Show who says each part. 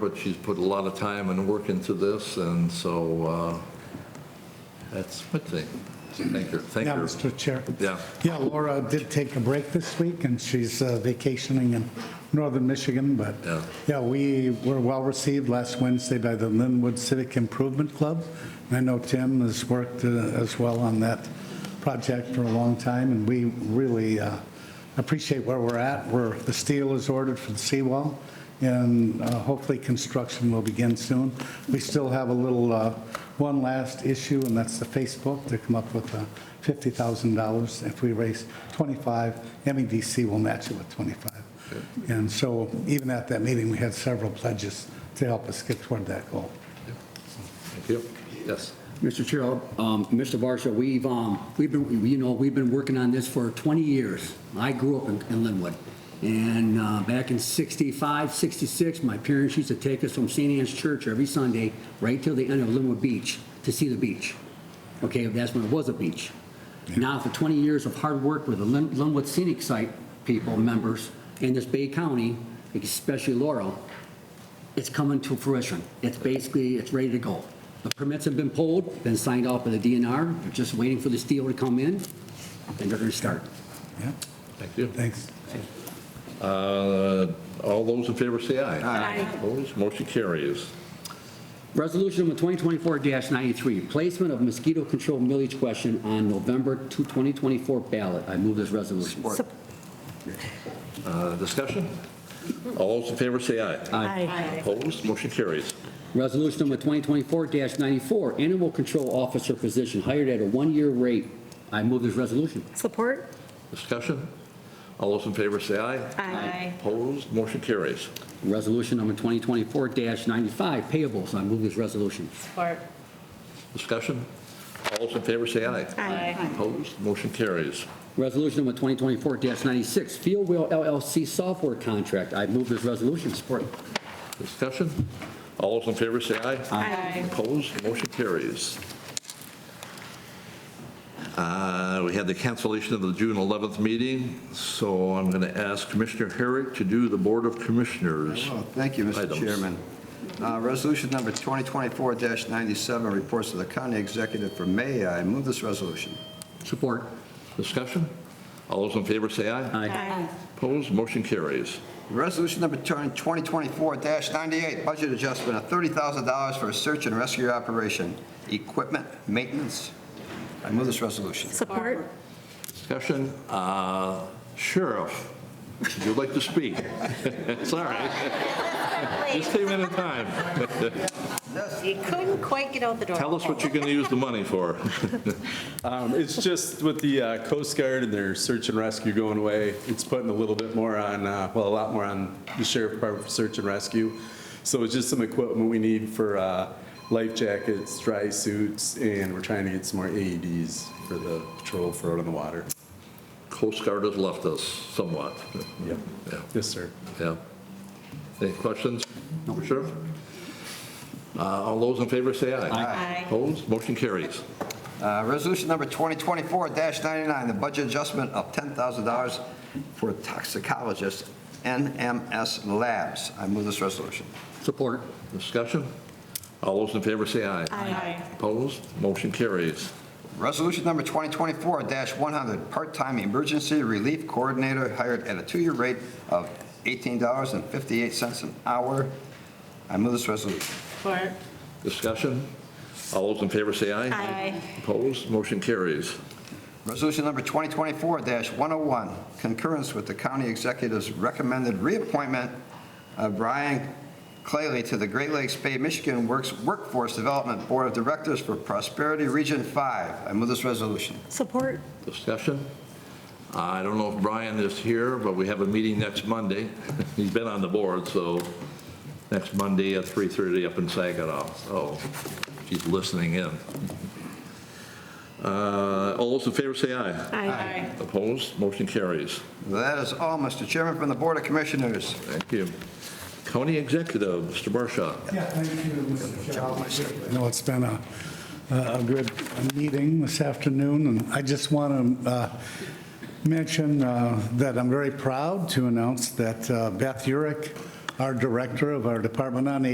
Speaker 1: But she's put a lot of time and work into this, and so uh, that's a good thing. So Thank her, thank
Speaker 2: Yeah,
Speaker 1: her.
Speaker 2: Mr. Chair.
Speaker 1: Yeah.
Speaker 2: Yeah, Laura did take a break this week, and she's uh, vacationing in northern Michigan, but,
Speaker 1: Yeah.
Speaker 2: yeah, we were well-received last Wednesday by the Linwood Civic Improvement Club, and I know Tim has worked uh, as well on that project for a long time, and we really uh, appreciate where we're at, where the steel is ordered for the seawall, and uh, hopefully construction will begin soon. We still have a little, uh, one last issue, and that's the Facebook, to come up with uh, $50,000. If we raise 25, MEDC will match it with 25. And so even at that meeting, we had several pledges to help us get toward that goal.
Speaker 1: Thank you. Yes.
Speaker 3: Mr. Chair, um, Mr. Varsha, we've, um, we've been, you know, we've been working on this for 20 years. I grew up in- in Linwood. And uh, back in 65, 66, my parents used to take us from St. Anne's Church every Sunday right till the end of Linwood Beach to see the beach. Okay, that's when it was a beach. Now, for 20 years of hard work with the Lin- Linwood Scenic Site people, members, in this Bay County, especially Laurel, it's coming to fruition. It's basically, it's ready to go. The permits have been pulled, been signed off by the DNR, they're just waiting for the steel to come in, and they're gonna start.
Speaker 2: Yeah,
Speaker 1: Thank you.
Speaker 2: thanks.
Speaker 1: Uh, All those in favor say aye.
Speaker 4: Aye.
Speaker 1: Opposed, motion carries.
Speaker 3: Resolution number 2024-93, placement of mosquito control millage question on November 2, 2024 ballot. I move this resolution.
Speaker 4: Sup-
Speaker 1: Uh, Discussion? All those in favor say aye.
Speaker 4: Aye.
Speaker 1: Opposed, motion carries.
Speaker 3: Resolution number 2024-94, animal control officer position hired at a one-year rate. I move this resolution.
Speaker 4: Support?
Speaker 1: Discussion? All those in favor say aye.
Speaker 4: Aye.
Speaker 1: Opposed, motion carries.
Speaker 3: Resolution number 2024-95, payables. I move this resolution.
Speaker 4: Support?
Speaker 1: Discussion? All those in favor say aye.
Speaker 4: Aye.
Speaker 1: Opposed, motion carries.
Speaker 3: Resolution number 2024-96, Field Wheel LLC software contract. I move this resolution. Support.
Speaker 1: Discussion? All those in favor say aye.
Speaker 4: Aye.
Speaker 1: Opposed, motion carries. Uh, We had the cancellation of the June 11th meeting, so I'm going to ask Commissioner Herrick to do the Board of Commissioners.
Speaker 5: Well, Oh, Thank you, Mr.
Speaker 1: items.
Speaker 5: Chairman. Uh, Resolution number 2024-97, reports to the county executive for May. I move this resolution.
Speaker 3: Support.
Speaker 1: Discussion? All those in favor say aye.
Speaker 3: Aye.
Speaker 1: Opposed, motion carries.
Speaker 5: Resolution number 2024-98, budget adjustment of $30,000 for a search and rescue operation, equipment maintenance. I move this resolution.
Speaker 4: Support?
Speaker 1: Discussion? Uh, Sheriff, would you like to speak? It's all right. Just came in in time.
Speaker 4: You couldn't quite get out the door.
Speaker 1: Tell us what you're going to use the money for.
Speaker 6: Um, It's just with the uh, Coast Guard and their search and rescue going away, it's putting a little bit more on, uh, well, a lot more on the sheriff department for search and rescue. So it's just some equipment we need for uh, life jackets, dry suits, and we're trying to get some more AEDs for the patrol for out on the water.
Speaker 1: Coast Guard has left us somewhat.
Speaker 6: Yep.
Speaker 1: Yeah.
Speaker 6: Yes, sir.
Speaker 1: Yeah. Any questions? Sheriff? Uh, All those in favor say aye.
Speaker 4: Aye.
Speaker 1: Opposed? Motion carries.
Speaker 5: Uh, Resolution number 2024-99, the budget adjustment of $10,000 for toxicologist NMS Labs. I move this resolution.
Speaker 3: Support.
Speaker 1: Discussion? All those in favor say aye.
Speaker 4: Aye.
Speaker 1: Opposed? Motion carries.
Speaker 5: Resolution number 2024-100, part-time emergency relief coordinator hired at a two-year rate of $18.58 an hour. I move this resolution.
Speaker 4: Support?
Speaker 1: Discussion? All those in favor say aye.
Speaker 4: Aye.
Speaker 1: Opposed? Motion carries.
Speaker 5: Resolution number 2024-101, concurrence with the county executive's recommended reappointment of Brian Clayley to the Great Lakes Bay, Michigan Works Workforce Development Board of Directors for Prosperity Region 5. I move this resolution.
Speaker 4: Support?
Speaker 1: Discussion? I don't know if Brian is here, but we have a meeting next Monday. He's been on the board, so next Monday at 3:30 up in Saginaw, so she's listening in. Uh, All those in favor say aye.
Speaker 4: Aye.
Speaker 1: Opposed? Motion carries.
Speaker 5: That is all, Mr. Chairman, from the Board of Commissioners.
Speaker 1: Thank you. County Executive, Mr. Barsha.
Speaker 2: Yeah, thank you, Mr. Chair. I know it's been a, a good meeting this afternoon, and I just want to uh, mention uh, that I'm very proud to announce that uh, Beth Urick, our Director of our Department on